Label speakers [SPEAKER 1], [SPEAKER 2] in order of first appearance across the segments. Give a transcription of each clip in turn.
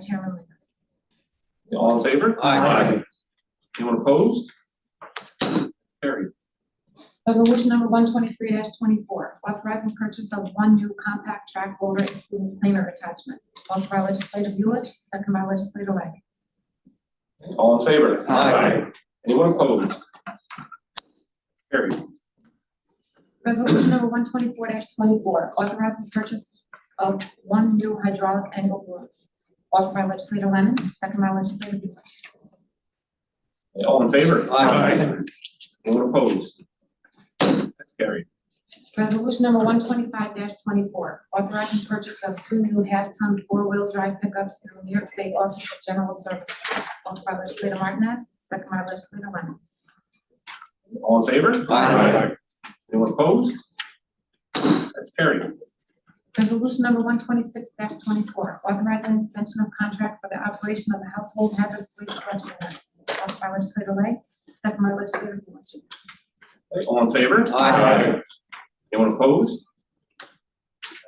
[SPEAKER 1] Chairman Linder.
[SPEAKER 2] All in favor?
[SPEAKER 3] Aye.
[SPEAKER 2] Anyone opposed? Carried.
[SPEAKER 1] Resolution number one twenty-three twenty-four, authorizing purchase of one new compact track loader including planer attachment. Offered by legislative Lewis, second by legislative Lang.
[SPEAKER 2] All in favor?
[SPEAKER 3] Aye.
[SPEAKER 2] Anyone opposed? Carried.
[SPEAKER 1] Resolution number one twenty-four twenty-four, authorizing purchase of one new hydraulic angle board. Offered by legislative Lennon, second by legislative Lewis.
[SPEAKER 2] All in favor?
[SPEAKER 3] Aye.
[SPEAKER 2] Anyone opposed? That's carried.
[SPEAKER 1] Resolution number one twenty-five twenty-four, authorizing purchase of two new half-ton four-wheel drive pickups through New York State Office of General Services. Offered by legislator Martinez, second by legislator Lennon.
[SPEAKER 2] All in favor?
[SPEAKER 3] Aye.
[SPEAKER 2] Anyone opposed? That's carried.
[SPEAKER 1] Resolution number one twenty-six twenty-four, authorizing extension of contract for the operation of the household hazardous waste collection units. Offered by legislator Lang, second by legislator Lewis.
[SPEAKER 2] All in favor?
[SPEAKER 3] Aye.
[SPEAKER 2] Anyone opposed?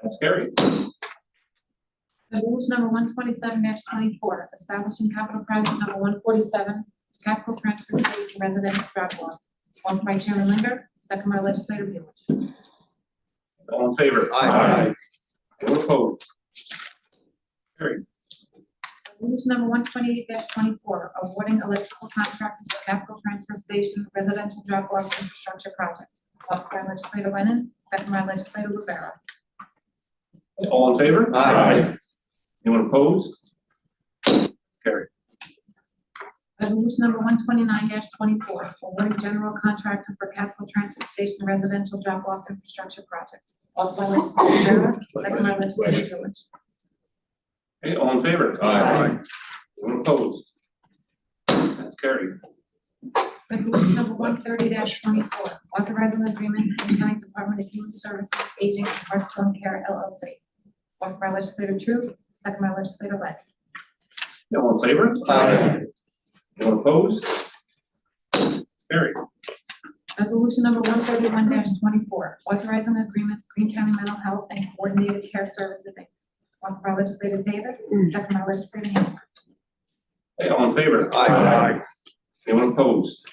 [SPEAKER 2] That's carried.
[SPEAKER 1] Resolution number one twenty-seven twenty-four, establishing capital project number one forty-seven, tactical transfer station residential drop off. Offered by Chairman Linder, second by legislator Lewis.
[SPEAKER 2] All in favor?
[SPEAKER 3] Aye.
[SPEAKER 2] Anyone opposed? Carried.
[SPEAKER 1] Resolution number one twenty-eight twenty-four, awarding electrical contract to Casco Transfer Station Residential Drop Off Infrastructure Project. Offered by legislator Lennon, second by legislator Rivera.
[SPEAKER 2] All in favor?
[SPEAKER 3] Aye.
[SPEAKER 2] Anyone opposed? Carried.
[SPEAKER 1] Resolution number one twenty-nine twenty-four, awarding general contractor for Casco Transfer Station Residential Drop Off Infrastructure Project. Offered by legislator Rivera, second by legislator Lewis.
[SPEAKER 2] Okay, all in favor?
[SPEAKER 3] Aye.
[SPEAKER 2] Anyone opposed? That's carried.
[SPEAKER 1] Resolution number one thirty twenty-four, authorizing agreement between County Department of Human Services Aging and Hearthstone Care LLC. Offered by legislator Tru, second by legislator Lett.
[SPEAKER 2] All in favor?
[SPEAKER 3] Aye.
[SPEAKER 2] Anyone opposed? Carried.
[SPEAKER 1] Resolution number one thirty-one twenty-four, authorizing agreement between Green County Mental Health and Coordinated Care Services Inc. Offered by legislator Davis, second by legislator Hamer.
[SPEAKER 2] Hey, all in favor?
[SPEAKER 3] Aye.
[SPEAKER 2] Anyone opposed?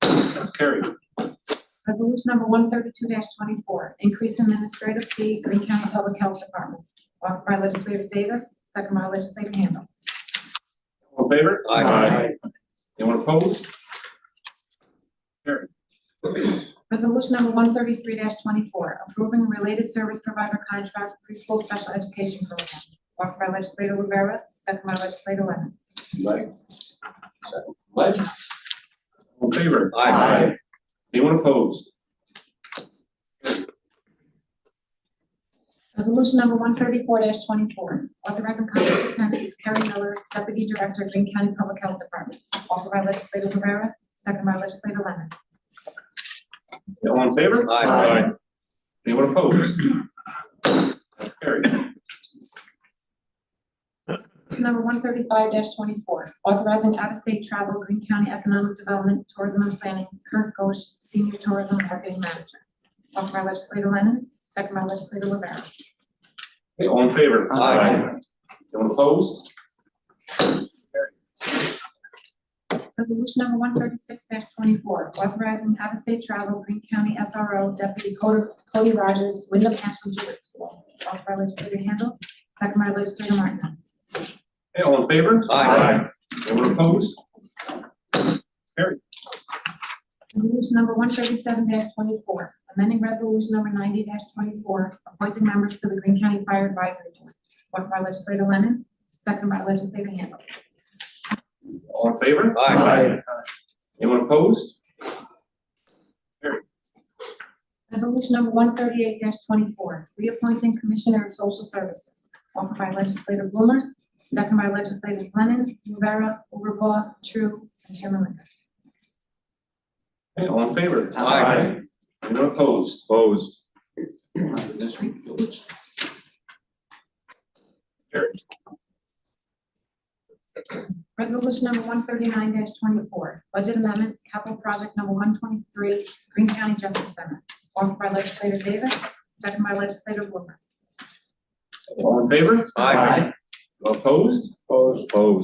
[SPEAKER 2] That's carried.
[SPEAKER 1] Resolution number one thirty-two twenty-four, increase administrative fee, Green County Public Health Department. Offered by legislator Davis, second by legislator Handle.
[SPEAKER 2] All in favor?
[SPEAKER 3] Aye. Aye.
[SPEAKER 2] Anyone opposed?
[SPEAKER 1] Resolution number one thirty-three twenty-four, approving related service provider contract preschool special education program. Offered by legislator Rivera, second by legislator Lennon.
[SPEAKER 2] Leg. Leg. All in favor?
[SPEAKER 3] Aye.
[SPEAKER 2] Anyone opposed?
[SPEAKER 1] Resolution number one thirty-four twenty-four, authorizing contract attendees Carrie Miller, deputy director, Green County Public Health Department. Offered by legislator Rivera, second by legislator Lennon.
[SPEAKER 2] All in favor?
[SPEAKER 3] Aye. Aye.
[SPEAKER 2] Anyone opposed? That's carried.
[SPEAKER 1] Resolution number one thirty-five twenty-four, authorizing out-of-state travel, Green County Economic Development, Tourism and Planning, Kurt Gosch, Senior Tourism Marketing Manager. Offered by legislator Lennon, second by legislator Rivera.
[SPEAKER 2] Hey, all in favor?
[SPEAKER 3] Aye.
[SPEAKER 2] Anyone opposed?
[SPEAKER 1] Resolution number one thirty-six twenty-four, authorizing out-of-state travel, Green County SRO Deputy Cody Cody Rogers, Wyndham National Jewish School. Offered by legislator Handle, second by legislator Martinez.
[SPEAKER 2] Hey, all in favor?
[SPEAKER 3] Aye.
[SPEAKER 2] Anyone opposed?
[SPEAKER 1] Resolution number one thirty-seven twenty-four, amending resolution number ninety twenty-four, appointing members to the Green County Fire Advisory Board. Offered by legislator Lennon, second by legislator Handle.
[SPEAKER 2] All in favor?
[SPEAKER 3] Aye.
[SPEAKER 2] Anyone opposed?
[SPEAKER 1] Resolution number one thirty-eight twenty-four, reappointing Commissioner of Social Services, offered by legislator Blumer, second by legislators Lennon, Rivera, Overbaugh, True, and Chairman Linder.
[SPEAKER 2] Hey, all in favor?
[SPEAKER 3] Aye.
[SPEAKER 2] Anyone opposed? Opposed. Carried.
[SPEAKER 1] Resolution number one thirty-nine twenty-four, budget amendment, capital project number one twenty-three, Green County Justice Center, offered by legislator Davis, second by legislator Blumer.
[SPEAKER 2] All in favor?
[SPEAKER 3] Aye.
[SPEAKER 2] Opposed? Opposed. Opposed.